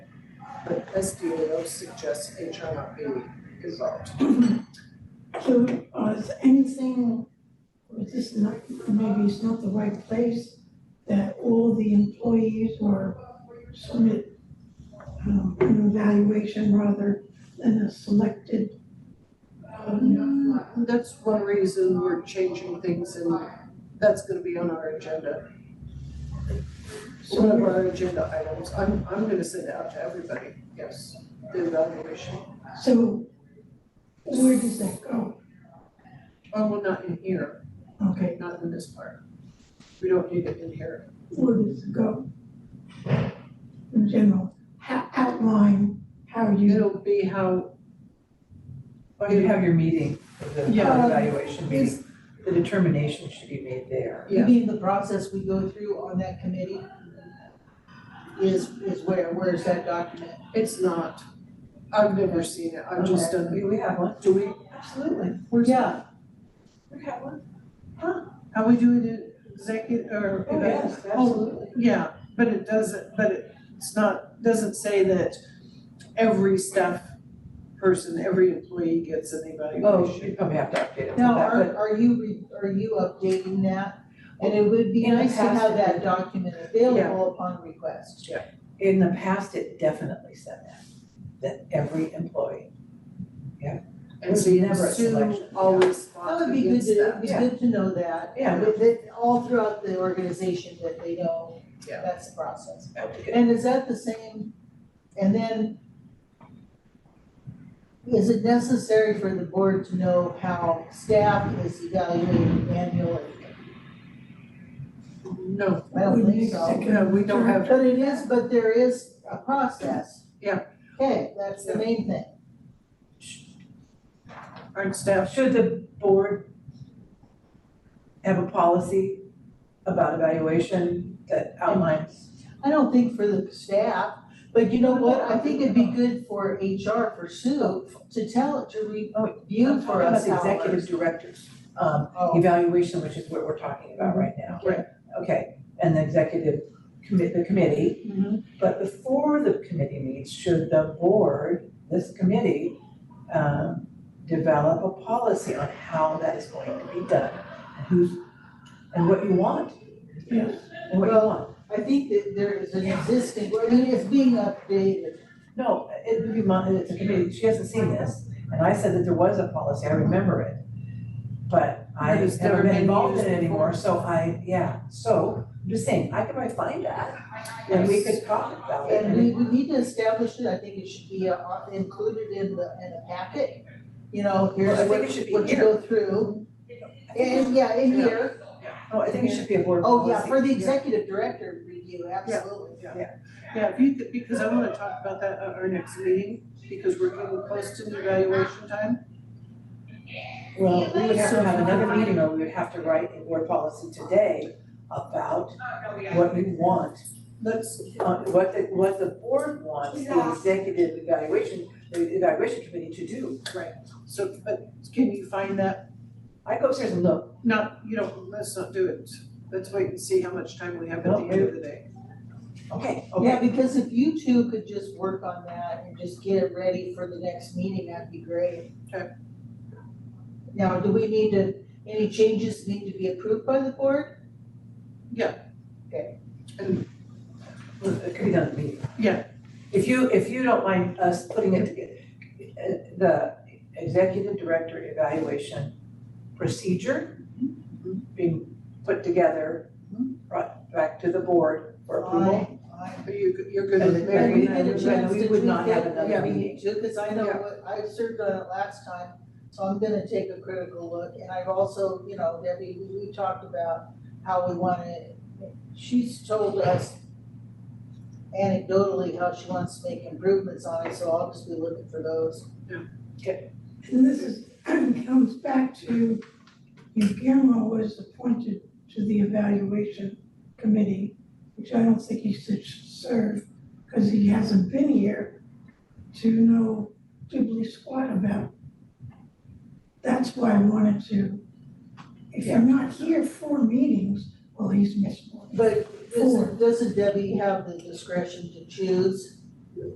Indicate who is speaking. Speaker 1: but SDAO suggests HR not be involved.
Speaker 2: So, uh, is anything, or is this not, maybe it's not the right place, that all the employees or submit, um, an evaluation rather than a selected, um,
Speaker 1: That's one reason we're changing things and that's gonna be on our agenda. One of
Speaker 2: so,
Speaker 1: our agenda items, I'm, I'm gonna send it out to everybody, yes, the evaluation.
Speaker 2: so where does that go?
Speaker 1: Oh, well, not in here,
Speaker 2: Okay,
Speaker 1: not in this part. We don't need it in here.
Speaker 2: where does it go? In general, ha- outline how you,
Speaker 1: It'll be how,
Speaker 3: Well, Oh, you have your meeting, the
Speaker 1: Yeah.
Speaker 3: evaluation
Speaker 1: it's,
Speaker 3: meeting, the determination should be made there.
Speaker 1: Yeah.
Speaker 4: You mean the process we go through on that committee? Is, is where, where's that document?
Speaker 1: it's not, I've never seen it, I've just done,
Speaker 3: We, we have one,
Speaker 1: do we,
Speaker 3: absolutely.
Speaker 1: where's?
Speaker 4: Yeah,
Speaker 3: We have one.
Speaker 1: How we do it in executive or?
Speaker 3: Oh, yes, absolutely.
Speaker 1: Yeah, but it doesn't, but it- it's not, doesn't say that every staff person, every employee gets an
Speaker 3: Oh,
Speaker 1: evaluation.
Speaker 3: you probably have to update it.
Speaker 4: now,
Speaker 3: but
Speaker 4: are, are you, re- are you updating that? And it would be
Speaker 3: In the
Speaker 4: nice to
Speaker 3: past,
Speaker 4: have
Speaker 3: it
Speaker 4: that
Speaker 3: did.
Speaker 4: document available upon request.
Speaker 3: In the past, it definitely said that, that every employee.
Speaker 1: And so you
Speaker 3: Never a
Speaker 1: assume
Speaker 3: selection, yeah.
Speaker 1: always
Speaker 4: That
Speaker 1: fought
Speaker 4: would be good
Speaker 1: against
Speaker 4: to,
Speaker 1: that.
Speaker 4: it'd be
Speaker 3: yeah.
Speaker 4: good to know that.
Speaker 3: Yeah.
Speaker 4: That, that all throughout the organization that they know
Speaker 1: Yeah.
Speaker 4: that's the process.
Speaker 3: I have to get-
Speaker 4: And is that the same, and then is it necessary for the board to know how staff is evaluated annually?
Speaker 1: No,
Speaker 4: I don't think so.
Speaker 1: no, we don't have,
Speaker 4: But it is, but there is a process.
Speaker 1: Yeah.
Speaker 4: Okay, that's the main thing.
Speaker 1: our staff,
Speaker 3: Should the board have a policy about evaluation that outlines?
Speaker 4: I don't think for the staff, but you know what, I think it'd be good for HR for Sue to tell, to review for us
Speaker 3: About
Speaker 4: how
Speaker 3: executive directors, um,
Speaker 4: Oh,
Speaker 3: evaluation, which is what we're talking about right now.
Speaker 1: Right.
Speaker 3: Okay, and the executive commit, the committee.
Speaker 4: mhm.
Speaker 3: But before the committee meets, should the board, this committee, um, develop a policy on how that is going to be done? and Who's, and what you want?
Speaker 2: Yes.
Speaker 3: And what you
Speaker 4: Well-
Speaker 3: want.
Speaker 4: I think that there is an existing, I mean, it's being updated.
Speaker 3: No, it would be mon, it's a committee, she hasn't seen this, and I said that there was a policy, I remember it. But I
Speaker 1: But it's
Speaker 3: have
Speaker 1: never
Speaker 3: never been
Speaker 1: been
Speaker 3: involved in
Speaker 1: used
Speaker 3: it anymore,
Speaker 1: before.
Speaker 3: so I, yeah, so, I'm just saying, I can probably find that. And we could talk about it.
Speaker 4: And we, we need to establish it, I think it should be uh, included in the, in the packet, you know,
Speaker 3: Well, I
Speaker 4: here's
Speaker 3: think
Speaker 4: what,
Speaker 3: it should be
Speaker 4: what you
Speaker 3: here.
Speaker 4: go through. And, yeah, in
Speaker 1: Yeah.
Speaker 4: here,
Speaker 3: Oh, I think it should be a board
Speaker 4: oh,
Speaker 3: policy.
Speaker 4: yeah, for the executive director review, absolutely.
Speaker 1: Yeah. yeah, if you could, because I wanna talk about that at our next meeting, because we're getting close to the evaluation time.
Speaker 3: Well, we would have to have another meeting or we would have to write a board policy today about what we want.
Speaker 1: Let's,
Speaker 3: uh, What the, what the board wants the executive evaluation, the evaluation committee to do.
Speaker 1: so, but can you find that?
Speaker 3: I go upstairs and look,
Speaker 1: No, you don't, let's not do it. Let's wait and see how much time we have at the end of the day.
Speaker 3: okay,
Speaker 4: Yeah,
Speaker 3: okay,
Speaker 4: because if you two could just work on that and just get it ready for the next meeting, that'd be great.
Speaker 1: Okay.
Speaker 4: Now, do we need to, any changes need to be approved by the board?
Speaker 3: Well, it could be done at the meeting.
Speaker 1: Yeah.
Speaker 3: If you, if you don't mind us putting it together, uh, the executive director evaluation procedure being put together, brought back to the board for approval.
Speaker 4: Aye.
Speaker 1: Are you, you're good
Speaker 3: And
Speaker 1: with
Speaker 3: then-
Speaker 1: Mary?
Speaker 4: And we had a chance
Speaker 3: we
Speaker 4: to
Speaker 3: would
Speaker 4: tweak
Speaker 3: not have
Speaker 4: it,
Speaker 3: another
Speaker 4: yeah, we
Speaker 3: meeting.
Speaker 4: do, cause I know
Speaker 1: Yeah.
Speaker 4: what, I served on it last time, so I'm gonna take a critical look, and I've also, you know, Debbie, we, we talked about how we wanna, she's told us anecdotally how she wants to make improvements on it, so I'll just be looking for those.
Speaker 2: and this is, comes back to, Guillermo was appointed to the evaluation committee, which I don't think he should serve, because he hasn't been here to know diddly squat about. That's why I wanted to, if you're not here for meetings, well, he's missed one.
Speaker 4: But
Speaker 2: Four.
Speaker 4: doesn't, doesn't Debbie have the discretion to choose?